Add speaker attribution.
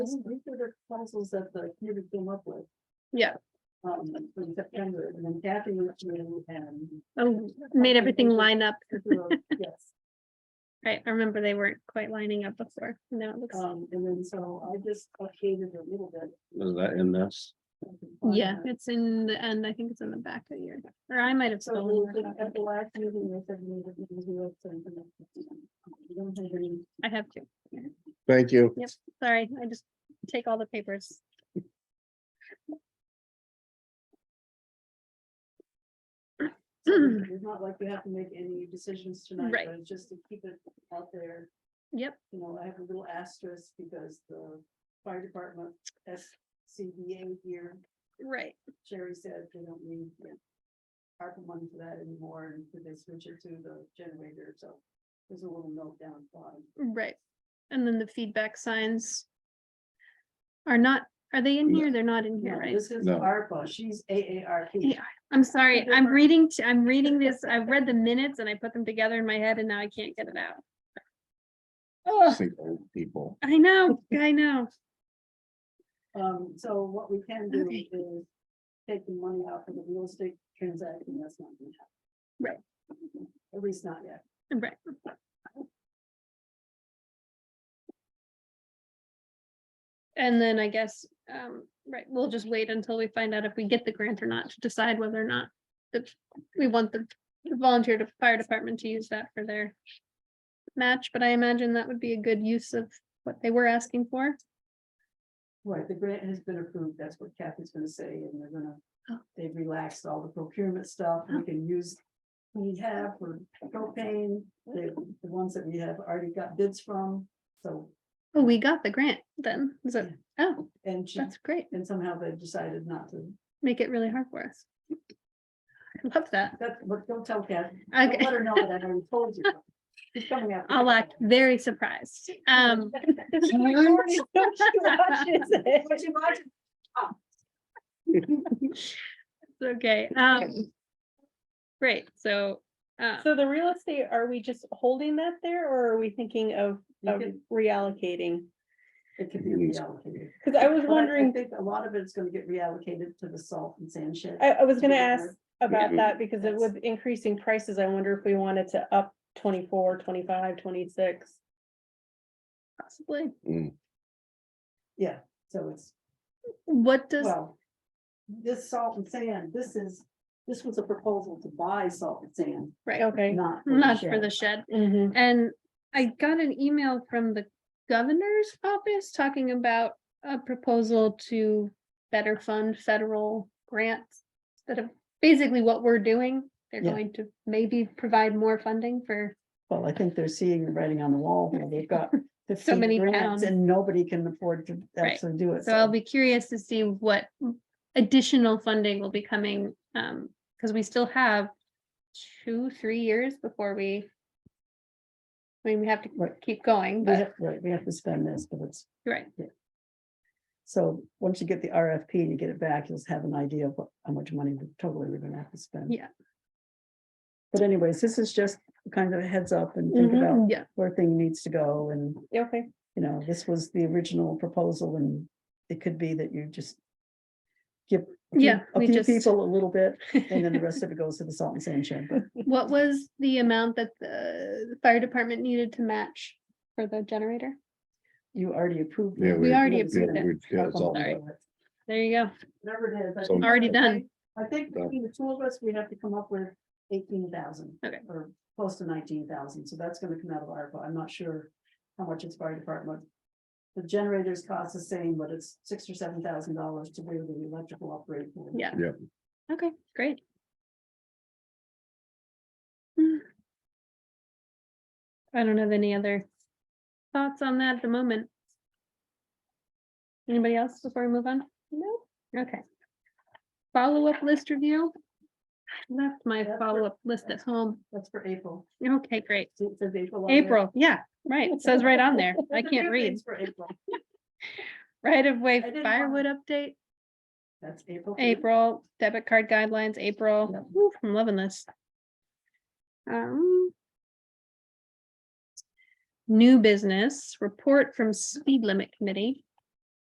Speaker 1: These are the proposals that the committee came up with.
Speaker 2: Yeah.
Speaker 1: Um, in September, and then Kathy went through and.
Speaker 2: Oh, made everything line up.
Speaker 1: Yes,
Speaker 2: Right, I remember they weren't quite lining up before. Now it looks,
Speaker 1: um, and then so I just updated a little bit.
Speaker 3: Is that in this?
Speaker 1: I can find
Speaker 2: yeah,
Speaker 1: that.
Speaker 2: it's in the end. I think it's in the back of your, or I might have
Speaker 1: So we
Speaker 2: stolen.
Speaker 1: did-
Speaker 2: your copy.
Speaker 1: at the last meeting, they said we would- we would send them up. um, We don't have any-
Speaker 2: I have two.
Speaker 3: Thank you.
Speaker 2: Yep, sorry, I just take all the papers.
Speaker 1: It's not like we have to make any decisions tonight,
Speaker 2: Right.
Speaker 1: but it's just to keep it out there.
Speaker 2: Yep,
Speaker 1: you know, I have a little asterisk because the fire department, SCBA here,
Speaker 2: right,
Speaker 1: Sherry said they don't need. you know, ARPA money for that anymore, and could they switch it to the generator, so there's a little note down at the bottom.
Speaker 2: right. And then the feedback signs are not, are they in
Speaker 3: No.
Speaker 2: here? They're not in here,
Speaker 1: No,
Speaker 2: right?
Speaker 1: This is
Speaker 3: No.
Speaker 1: ARPA, she's AARP.
Speaker 2: Yeah. I'm sorry, I'm
Speaker 1: different-
Speaker 2: reading, t- I'm reading this, I've read the minutes and I put them together in my head and now I can't get it out. Oh,
Speaker 3: Think old people.
Speaker 2: I know, I know.
Speaker 1: Um, so what we can do
Speaker 2: Okay.
Speaker 1: is take the money out for the real estate transaction, that's not gonna happen. Right. At least not yet.
Speaker 2: Right, and then I guess, um, right, we'll just wait until we find out if we get the grant or not to decide whether or not that we want the volunteer to fire department to use that for their match, but I imagine that would be a good use of what they were asking for.
Speaker 1: Right, the grant has been approved, that's what Kathy's gonna say, and they're
Speaker 2: Oh.
Speaker 1: gonna, they've relaxed all the procurement stuff, we can use. We have for propane, the, the ones that we have already got bids from, so,
Speaker 2: Oh, we got the grant then, is it? Oh,
Speaker 1: and she,
Speaker 2: that's great.
Speaker 1: and somehow they decided not to.
Speaker 2: Make it really hard for us. I love that.
Speaker 1: That, but don't tell Kathy, don't
Speaker 2: Okay,
Speaker 1: let her know that I already told you. She's coming after
Speaker 2: I'll
Speaker 1: you.
Speaker 2: act very surprised. Um,
Speaker 1: She already told you what she said. What you watch-
Speaker 2: It's Okay, um. Great, so, uh,
Speaker 4: So the real estate, are we just holding that there or are we thinking of,
Speaker 1: You
Speaker 4: of
Speaker 1: could-
Speaker 4: reallocating?
Speaker 1: It could be reallocated.
Speaker 4: Cause I was
Speaker 1: But I
Speaker 4: wondering,
Speaker 1: think a lot of it's gonna get reallocated to the salt and sand shed.
Speaker 4: I, I was gonna
Speaker 1: Yeah.
Speaker 4: ask about
Speaker 3: Mhm.
Speaker 4: that because it
Speaker 1: Yes.
Speaker 4: with increasing prices, I wonder if we wanted to up 24, 25, 26.
Speaker 2: possibly,
Speaker 1: Yeah, so it's,
Speaker 2: what does,
Speaker 1: well, this salt and sand, this is, this was a proposal to buy salt and sand,
Speaker 2: right,
Speaker 4: Okay.
Speaker 1: not.
Speaker 2: not for the shed,
Speaker 1: Mm-hmm.
Speaker 4: Mhm.
Speaker 2: and I got an email from the governor's office talking about a proposal to better fund federal grants that have, basically what we're doing, they're
Speaker 1: Yeah.
Speaker 2: going to maybe provide more funding for,
Speaker 1: Well, I think they're seeing the writing on the wall, where they've got
Speaker 2: So many
Speaker 1: 15 grants
Speaker 2: pounds.
Speaker 1: and nobody can afford to
Speaker 2: Right.
Speaker 1: actually do it.
Speaker 2: so I'll be curious to see what additional funding will be coming, um, because we still have two, three years before we I mean, we have to
Speaker 1: Right.
Speaker 2: keep going,
Speaker 1: We
Speaker 2: but,
Speaker 1: have, right, we have to spend this, but it's,
Speaker 2: right,
Speaker 1: so once you get the RFP and you get it back, you'll have an idea of what, how much money we- totally we're gonna have to spend.
Speaker 2: Yeah.
Speaker 1: But anyways, this is just kind of a heads up and think
Speaker 4: Mhm.
Speaker 1: about
Speaker 2: Mm-hmm. yeah,
Speaker 1: where thing needs to go and
Speaker 4: Okay,
Speaker 1: you know, this was the original proposal and it could be that you just give a few-
Speaker 2: Yeah,
Speaker 1: a
Speaker 2: we
Speaker 1: few
Speaker 2: just-
Speaker 1: people a little bit and then the rest of it goes to the salt and sand shed, but
Speaker 2: What was the amount that the fire department needed to match for the generator?
Speaker 1: you already approved.
Speaker 3: Yeah,
Speaker 1: it.
Speaker 3: we-
Speaker 2: We already
Speaker 1: haven't seen
Speaker 2: approved it.
Speaker 1: it.
Speaker 3: Yeah, it's all-
Speaker 2: Sorry. There you go.
Speaker 1: Whatever it is, I
Speaker 3: So-
Speaker 1: think-
Speaker 2: Already done.
Speaker 1: I think
Speaker 3: Done.
Speaker 1: between the two of us, we have to come up with eighteen thousand.
Speaker 2: Okay.
Speaker 1: Or close to nineteen thousand, so that's gonna come out of ARPA, I'm not sure how much it's fire department. The generators cost the same, but it's six or seven thousand dollars to do the electrical upgrade.
Speaker 2: Yeah.
Speaker 3: Yep.
Speaker 2: Okay, great. Hmm. I don't have any other thoughts on that at the moment. Anybody else before we move on? No. Okay. Follow-up list review. Left my
Speaker 1: That's for-
Speaker 2: follow-up list at home.
Speaker 1: That's for April.
Speaker 2: Okay, great.
Speaker 1: It says April. on there.
Speaker 2: April, yeah, right. It says right on there. I
Speaker 1: There's a
Speaker 2: can't
Speaker 1: few
Speaker 2: read.
Speaker 1: things For April,
Speaker 2: Right of way
Speaker 1: I didn't
Speaker 2: firewood update,
Speaker 1: that's April. for you.
Speaker 2: April, debit card guidelines, April.
Speaker 1: Yep.
Speaker 2: Woo, I'm loving this. Um. New business report from speed limit committee.